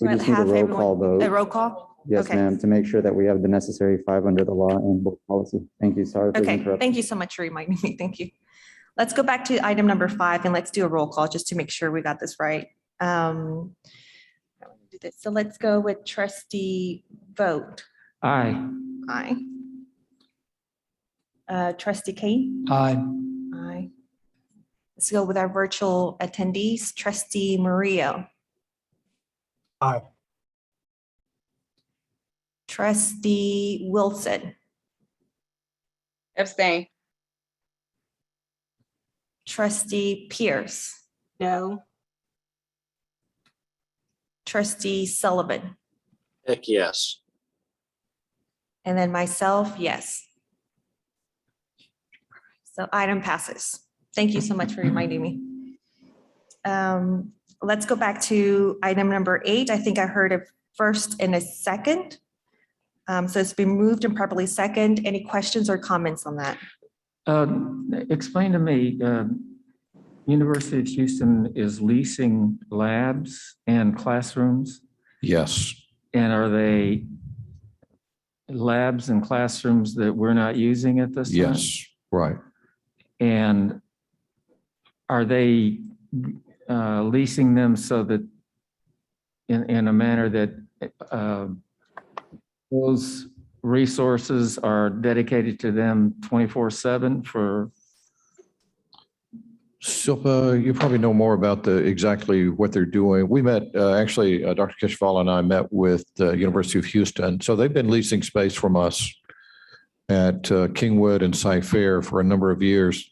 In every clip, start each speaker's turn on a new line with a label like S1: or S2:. S1: We
S2: Well,
S1: just need a
S2: have
S1: roll
S2: everyone-
S1: call vote.
S2: A roll call?
S1: Yes,
S2: okay.
S1: ma'am, to make sure that we have the necessary five under the law and board policy. Thank you. Sorry for the
S2: Okay,
S1: interruption.
S2: thank you so much for reminding me. Thank you. Let's go back to item number five and let's do a roll call just to make sure we got this right. Um, I wanna do this. So let's go with trustee vote.
S3: Aye.
S2: Aye. Uh, Trustee Kane?
S3: Aye.
S2: Aye. Let's go with our virtual attendees. Trustee Mario?
S3: Aye.
S2: Trustee Wilson?
S4: Abstain.
S2: Trustee Pierce?
S4: No.
S2: Trustee Sullivan?
S5: Heck, yes.
S2: And then myself, yes. So item passes. Thank you so much for reminding me. Um, Let's go back to item number eight. I think I heard a first and a second. Um, So it's been moved and properly second. Any questions or comments on that?
S3: Uh, Explain to me, uh, University of Houston is leasing labs and classrooms?
S6: Yes,
S3: And are they labs and classrooms that we're not using at this time?
S6: yes, right.
S3: And are they uh, leasing them so that in, in a manner that uh, those resources are dedicated to them 24/7 for,
S6: Silpa, you probably know more about the, exactly what they're doing. We met, uh, actually, uh, Dr. Kishval and I met with the University of Houston. So they've been leasing space from us at uh, Kingwood and Sci Fair for a number of years.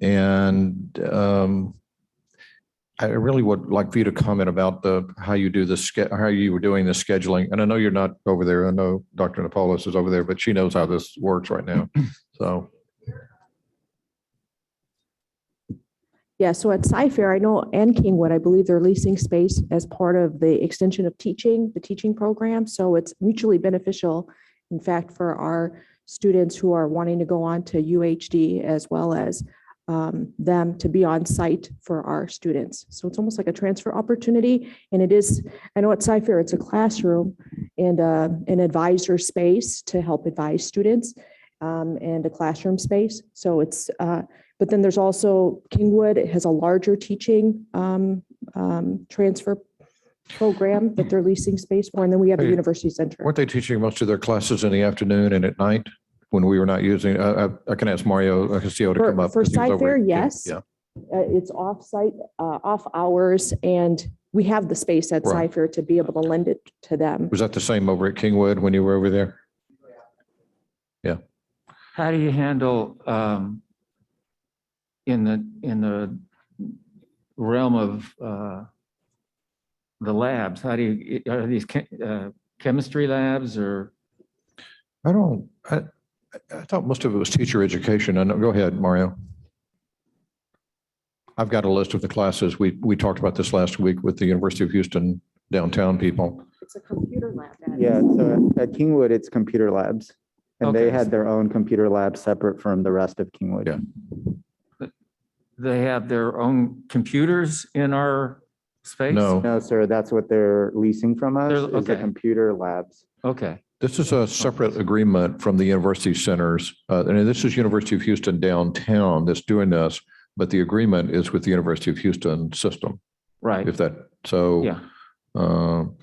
S6: And um, I really would like for you to comment about the, how you do the, sch- how you were doing the scheduling. And I know you're not over there. I know Dr. Napolis is over there, but she knows how this works right now. So.
S7: Yeah, so at Sci-Fair, I know, and Kingwood, I believe they're leasing space as part of the extension of teaching, the teaching program. So it's mutually beneficial, in fact, for our students who are wanting to go on to UHD as well as um, them to be on site for our students. So it's almost like a transfer opportunity. And it is, I know at Sci-Fair, it's a classroom and uh, an advisor space to help advise students um, and a classroom space. So it's uh, but then there's also Kingwood it has a larger teaching um, um, transfer program that they're leasing space for. And then we have the
S6: Okay.
S7: university center.
S6: Weren't they teaching most of their classes in the afternoon and at night when we were not using, I, I- I can ask Mario uh, Castillo E to
S7: For-
S6: come up.
S7: for
S6: 'cause he was
S7: Sci
S6: over
S7: Fair,
S6: at-
S7: yes.
S6: Yeah,
S7: Uh, It's off-site, uh, off hours, and we have the space at
S6: Right.
S7: Cypher to be able to lend it to them.
S6: was that the same over at Kingwood when you were over there?
S3: how do you handle um, in the, in the realm of uh, the labs? How do you, are these che- uh, chemistry labs or?
S6: I don't, I, I thought most of it was teacher education. I know, go ahead, Mario. I've got a list of the classes. We, we talked about this last week with the University of Houston downtown people.
S7: It's a computer lab. that is.
S1: Yeah, so at at Kingwood, it's computer labs. And they
S3: Okay.
S1: had their own computer lab separate from the rest of Kingwood.
S6: Yeah.
S3: they have their own computers in our space?
S6: No,
S1: No, sir, that's what they're leasing from us, is
S3: They're-
S1: the
S3: okay.
S1: computer labs.
S3: Okay,
S6: This is a separate agreement from the university centers, uh, and this is University of Houston downtown that's doing this, but the agreement is with the University of Houston system,
S3: right,
S6: if that, so.
S3: yeah.
S6: um,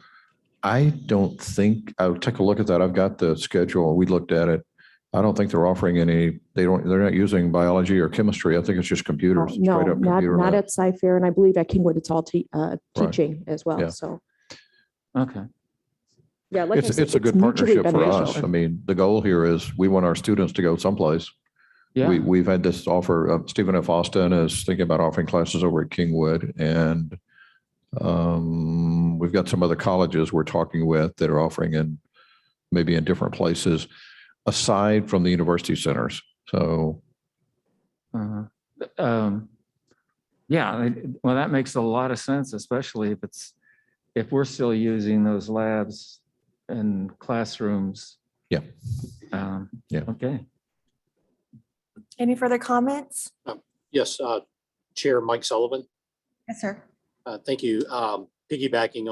S6: I don't think, I'll take a look at that. I've got the schedule. We looked at it. I don't think they're offering any, they don't, they're not using biology or chemistry. I think it's just
S7: No,
S6: computers.
S7: No,
S6: straight up
S7: not,
S6: computer
S7: not
S6: lab.
S7: at Cypher, and I believe at Kingwood, it's all te- uh,
S6: Right.
S7: teaching as
S6: Yeah.
S7: well, so.
S3: Okay,
S7: Yeah, like I
S6: It's,
S7: said,
S6: it's a good
S7: mutually
S6: partnership for us.
S7: beneficial.
S6: I mean, the goal here is we want our students to go someplace.
S3: yeah,
S6: We, we've had this offer, uh, Stephen F. Austin is thinking about offering classes over at Kingwood and um, we've got some other colleges we're talking with that are offering in, maybe in different places, aside from the university centers. So,
S3: uh-huh. Um, yeah, it- well, that makes a lot of sense, especially if it's, if we're still using those labs and classrooms.
S6: Yeah.
S3: Um,
S6: Yeah.
S3: Okay,
S2: Any further comments?
S5: Yes, uh, Chair Mike Sullivan,
S2: Yes, sir.
S5: uh, thank you. Um, Piggybacking